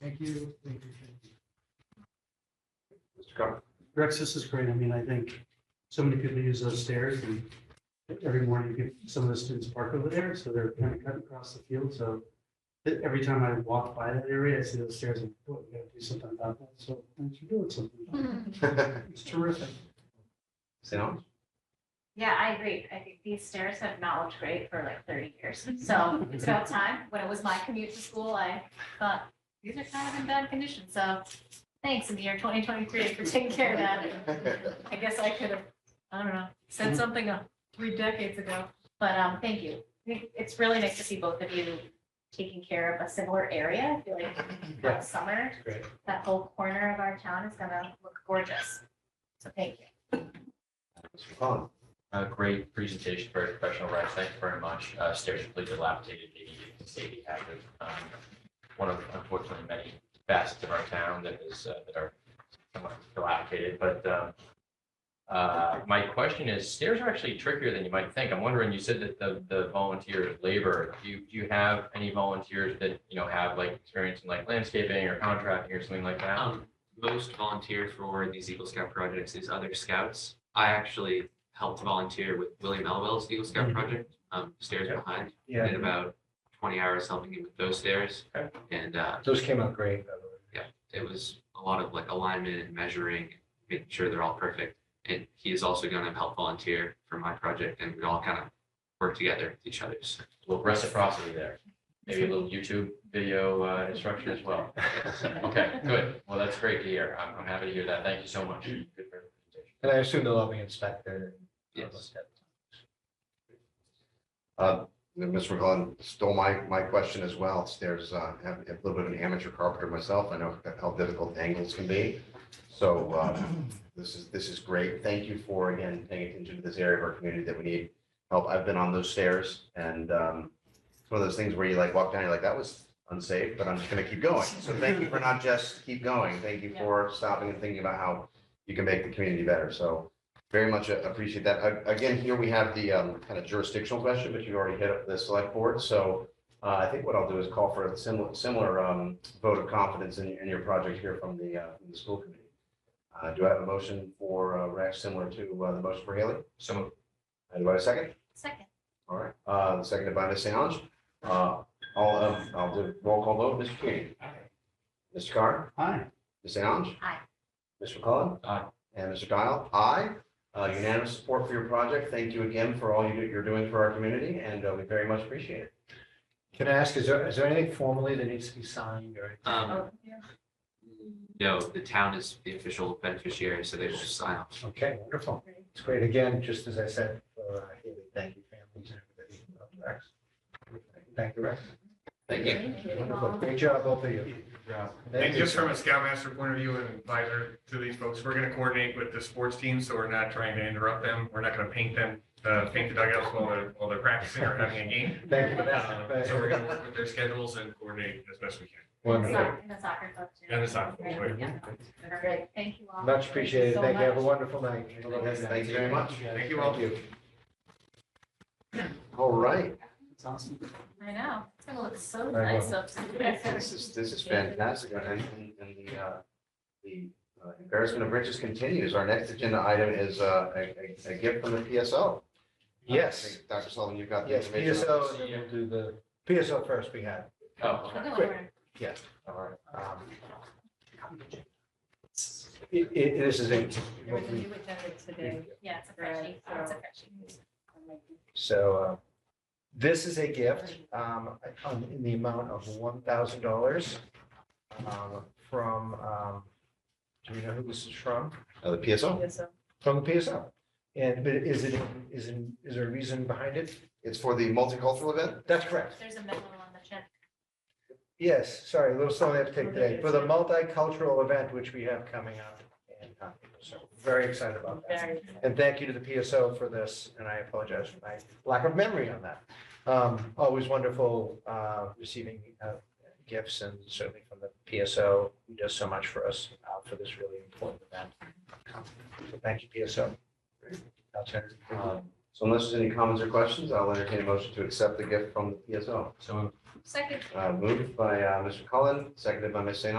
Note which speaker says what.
Speaker 1: Thank you, thank you, thank you.
Speaker 2: Mr. Comer.
Speaker 1: Rex, this is great. I mean, I think so many people use those stairs and every morning you get some of the students park over there, so they're kind of cut across the field, so e- every time I walk by that area, I see those stairs and, oh, we gotta do something about that, so thanks for doing something.
Speaker 3: Mm-hmm.
Speaker 1: It's terrific.
Speaker 2: Sam?
Speaker 3: Yeah, I agree. I think these stairs have not looked great for like thirty years. So it's about time. When it was my commute to school, I thought, these are kind of in bad condition. So thanks in the year twenty twenty-three for taking care of that. I guess I could have, I don't know, said something uh, three decades ago, but um, thank you. I think It's really nice to see both of you taking care of a similar area. I feel like that summer,
Speaker 1: Great.
Speaker 3: that whole corner of our town is gonna look gorgeous. So thank you.
Speaker 2: Mr. Collins.
Speaker 4: A great presentation, very professional, Rex. Thank you very much. Uh, Stairs completely dilapidated, maybe you can say the hazard. Um, One of unfortunately many facets of our town that is, uh, that are somewhat dilapidated, but um, uh, my question is, stairs are actually trickier than you might think. I'm wondering, you said that the, the volunteer labor, do you, do you have any volunteers that, you know, have like experience in like landscaping or contracting or something like that?
Speaker 5: Um, most volunteer for these Eagle Scout projects, these other scouts. I actually helped volunteer with William Elwell's Eagle Scout
Speaker 1: Mhm.
Speaker 5: project, um, stairs
Speaker 4: Yeah.
Speaker 5: behind. Did about twenty hours helping him with those stairs.
Speaker 4: Okay.
Speaker 5: And, uh,
Speaker 6: Those came out great, by the way.
Speaker 5: it was a lot of like alignment and measuring, making sure they're all perfect. And he is also gonna help volunteer for my project and we all kind of work together with each other. So
Speaker 4: A little reciprocity there. Maybe a little YouTube video uh, instruction as well. Okay, good. Well, that's great to hear. I'm, I'm happy to hear that. Thank you so much. Good presentation.
Speaker 6: And I assume they'll all be inspected. and all
Speaker 5: Yes.
Speaker 6: that.
Speaker 2: Uh, then Mr. McClellan stole my, my question as well. There's, uh, have a little bit of an amateur carpenter myself. I know how difficult angles can be. So, um, this is, this is great. Thank you for, again, paying attention to this area of our community that we need help. I've been on those stairs and, um, it's one of those things where you like walk down, you're like, that was unsafe, but I'm just gonna keep going. So thank you for not just keep going. Thank you for stopping and thinking about how you can make the community better. So very much uh, appreciate that. A- Again, here we have the um, kind of jurisdictional question, but you already hit up the select board. So uh, I think what I'll do is call for a similar, similar um, vote of confidence in, in your project here from the, uh, from the school committee. Uh, Do I have a motion for uh, Rex similar to uh, the motion for Haley?
Speaker 4: So moved.
Speaker 2: Uh, Do I have a second?
Speaker 3: Second,
Speaker 2: All right, Uh, seconded by Ms. Allen. Uh, All of, I'll do roll call vote. Mr. Keating. Mr. Carr.
Speaker 1: Hi,
Speaker 2: Ms. Allen.
Speaker 3: Aye.
Speaker 2: Mr. McCollum.
Speaker 4: Aye.
Speaker 2: And Mr. Dial. Aye. Uh, Unanimous support for your project. Thank you again for all you do- you're doing for our community, and uh, we very much appreciate it.
Speaker 6: Can I ask, is there, is there anything formally that needs to be signed or? anything?
Speaker 5: Um,
Speaker 3: oh, yeah.
Speaker 5: no, the town is the official beneficiary, so they will sign off.
Speaker 6: Okay, wonderful. It's great. Again, just as I said, for, uh, Haley, thank you families and everybody. uh, Rex. Thank you, Rex.
Speaker 2: Thank you.
Speaker 6: Wonderful. Great job, both of you.
Speaker 7: And just from a scoutmaster point of view and advisor to these folks, we're gonna coordinate with the sports team, so we're not trying to interrupt them. We're not gonna paint them, uh, paint the dugouts while they're, while they're practicing or having a game.
Speaker 6: Thank you for
Speaker 7: Uh, So we're
Speaker 6: that.
Speaker 7: gonna work with their schedules and coordinate as best we can.
Speaker 6: Wonderful.
Speaker 3: Soc- And the soccer club too.
Speaker 7: And the soccer club, right.
Speaker 3: Yeah. All right. Thank you all.
Speaker 6: Much appreciated. Thank you. Have a
Speaker 3: much.
Speaker 6: wonderful night.
Speaker 2: Thank you very much.
Speaker 7: Thank you all.
Speaker 6: Thank you.
Speaker 2: All right,
Speaker 1: it's awesome.
Speaker 3: I know. It's gonna look so
Speaker 6: Very
Speaker 3: nice up.
Speaker 2: this is, this is fantastic, and, and- and the, uh, the uh, embarrassment of riches continues. Our next agenda item is uh, a, a- a gift from the PSO. Uh, I
Speaker 6: Yes,
Speaker 2: think, Dr. Sullivan, you've got the
Speaker 6: yes,
Speaker 2: information.
Speaker 6: PSO, and then we'll do the, PSO first we have.
Speaker 4: Oh,
Speaker 6: Yes. All right. Um, It, it, this is a, what we-
Speaker 3: Yeah, it's a freshie. Oh, It's a freshie.
Speaker 6: so, uh, this is a gift, um, on- in the amount of one thousand dollars. Um, from, um, do we know who this is from?
Speaker 2: Uh, The PSO?
Speaker 6: From the PSO. And, but is it, is it, is there a reason behind it?
Speaker 2: It's for the multicultural event?
Speaker 6: That's correct.
Speaker 3: There's a medal on the check.
Speaker 6: Yes, sorry, a little something I have to take today, for the multicultural event which we have coming up. And, uh, so very excited about that.
Speaker 3: Very
Speaker 6: And thank you to the PSO for this, and I apologize for my lack of memory on that. Um, Always wonderful uh, receiving uh, gifts and certainly from the PSO, who does so much for us uh, for this really important event. So Thank you, PSO. I'll turn it-
Speaker 2: Um, So unless there's any comments or questions, I'll entertain a motion to accept the gift from the PSO.
Speaker 4: so moved.
Speaker 3: Second.
Speaker 2: Uh, Moved by uh, Mr. Cullen, seconded by Ms. St.